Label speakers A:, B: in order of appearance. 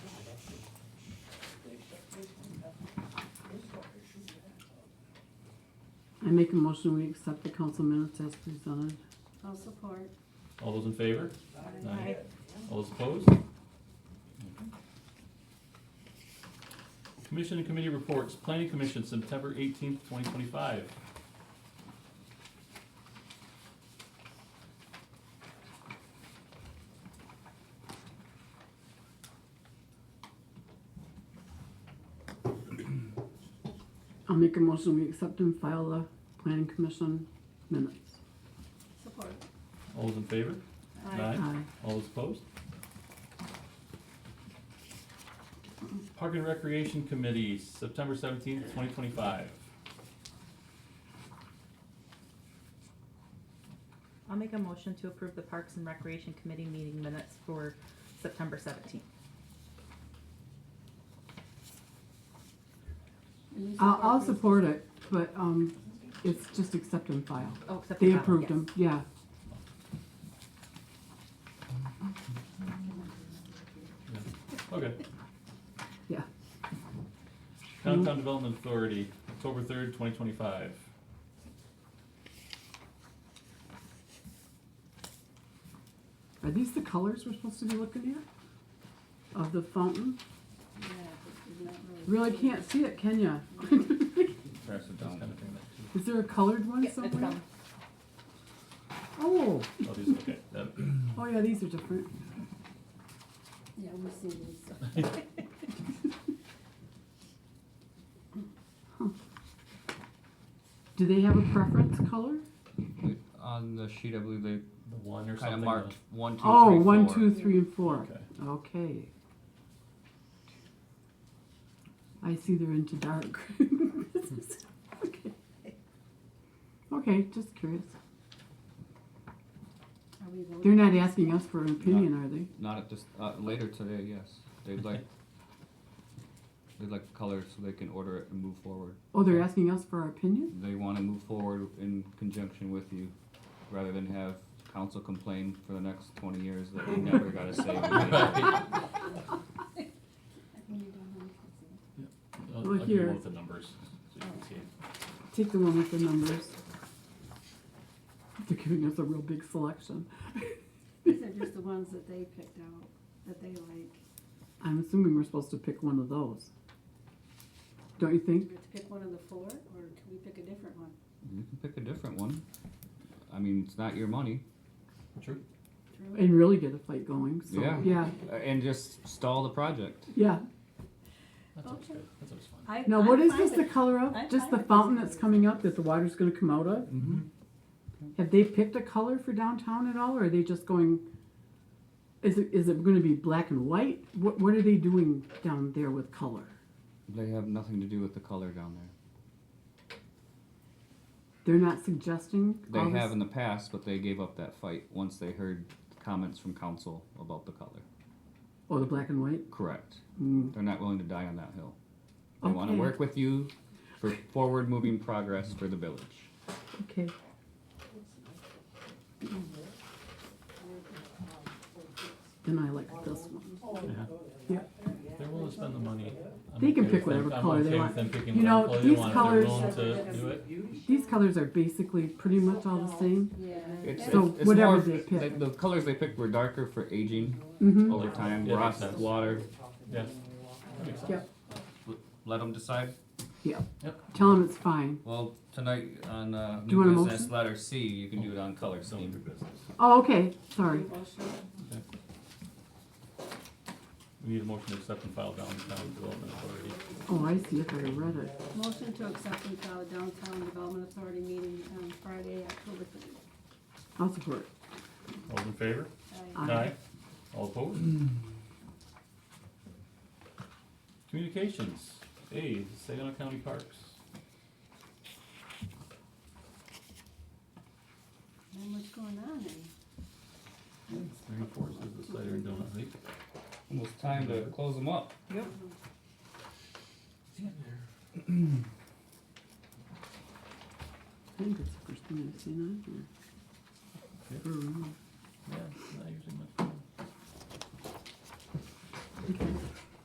A: I make a motion, we accept the council minutes as presented.
B: I'll support.
C: All those in favor?
B: Aye.
C: All those opposed? Commission and committee reports, planning commission, September eighteenth, twenty twenty-five.
A: I'll make a motion, we accept and file the planning commission minutes.
B: Support.
C: All those in favor? Aye.
A: Aye.
C: All those opposed? Park and Recreation Committee, September seventeenth, twenty twenty-five.
D: I'll make a motion to approve the Parks and Recreation Committee meeting minutes for September seventeenth.
B: And you
A: I'll, I'll
B: these?
A: support it, but, um, it's just accept and file.
D: Oh, except for
A: They
D: that one,
A: approved
D: yes.
A: them, yeah.
C: Okay.
A: Yeah.
C: Downtown Development Authority, October third, twenty twenty-five.
A: Are these the colors we're supposed to be looking at? Of the fountain?
B: Yeah, this is not
A: Really can't see it, can ya?
C: Pass it down. Oh,
A: Is there a colored one
D: Yeah, it's
A: somewhere?
D: done.
A: Oh,
C: these, okay. That-
A: oh yeah, these are different.
B: Yeah, we see these.
A: Do they have a preference color?
E: On the sheet, I believe they
C: The one or
E: kind of
C: something.
E: marked one, two,
A: Oh,
E: three,
A: one,
E: four.
A: two, three, and four.
C: Okay.
A: Okay. I see they're into dark. Okay. Okay, just curious.
B: Are we voting?
A: They're not asking us for an opinion, are they?
E: Not at this. Uh, later today, yes. They'd like. They'd like colors so they can order it and move forward.
A: Oh, they're asking us for our opinion?
E: They want to move forward in conjunction with you, rather than have council complain for the next twenty years that we never got to say. we did.
B: When you don't have to
C: I'll- I'll
A: Look
C: give you
A: here.
C: both the numbers, so you can see.
A: Take the one with the numbers. They're giving us a real big selection.
B: see. These are just the ones that they picked out, that they like.
A: I'm assuming we're supposed to pick one of those. Don't you
B: Do
A: think?
B: we have to pick one of the four, or can we pick a different one?
E: You can pick a different one. I mean, it's not your money.
C: True.
B: Drew?
A: And really get a fight going, so,
E: Yeah.
A: yeah,
E: Uh, And just stall the project.
A: yeah.
C: That's always
B: Okay.
C: good. That's always fun.
B: I-
A: Now,
B: I'm
A: what is
B: fine
A: this, the
B: with-
A: color of?
B: I'm
A: Just the
B: fine with this
A: fountain
B: color.
A: that's coming up that the water's gonna come out of?
E: Mm-hmm.
A: Have they picked a color for downtown at all, or are they just going, is it, is it gonna be black and white? What, what are they doing down there with color?
E: They have nothing to do with the color down there.
A: They're not suggesting? all
E: They
A: this-
E: have in the past, but they gave up that fight once they heard comments from council about the color.
A: Oh, the black and white?
E: Correct.
A: Mm.
E: They're not willing to die on that hill. They want to
A: Okay.
E: work with you for forward moving progress for the village.
A: Okay, then I like this one.
C: They're willing to spend the money. I'm
A: They can
C: okay
A: pick
C: with them-
A: whatever color they
C: I'm
A: want.
C: okay with them picking
A: You know,
C: whatever color they
A: these
C: want.
A: colors-
C: If they're willing to do it.
A: These colors are basically pretty much all the same.
B: Yeah.
E: It's,
A: So
E: it's, it's
A: whatever
E: more,
A: they
E: it's-
A: pick.
E: the colors they picked were darker for aging
A: Mm-hmm,
E: over
C: Yeah.
E: time,
C: Yeah,
E: rust,
C: makes sense.
E: water.
C: Yeah. That makes sense.
A: yep,
E: Let them decide.
A: tell them it's fine.
E: Well, tonight on uh,
A: Do you want a
E: new business
A: motion?
E: letter C, you can do it on color
C: So,
E: scheme.
A: Oh, okay, sorry.
C: We need a motion to accept and file downtown development authority.
A: Oh, I see, if I read it.
B: Motion to accept and file downtown development authority meeting on Friday, October third.
A: I'll support.
C: All those in favor?
A: Aye.
C: All opposed? Communications, A, Saginaw County Parks.
B: And what's going on? eh?
C: Three fourths is the cider and donut, right?
E: Almost time to close them up.
A: I think that's the first thing I've seen on here. um, Brew.
C: Yeah, it's not usually much. fun.
A: Okay.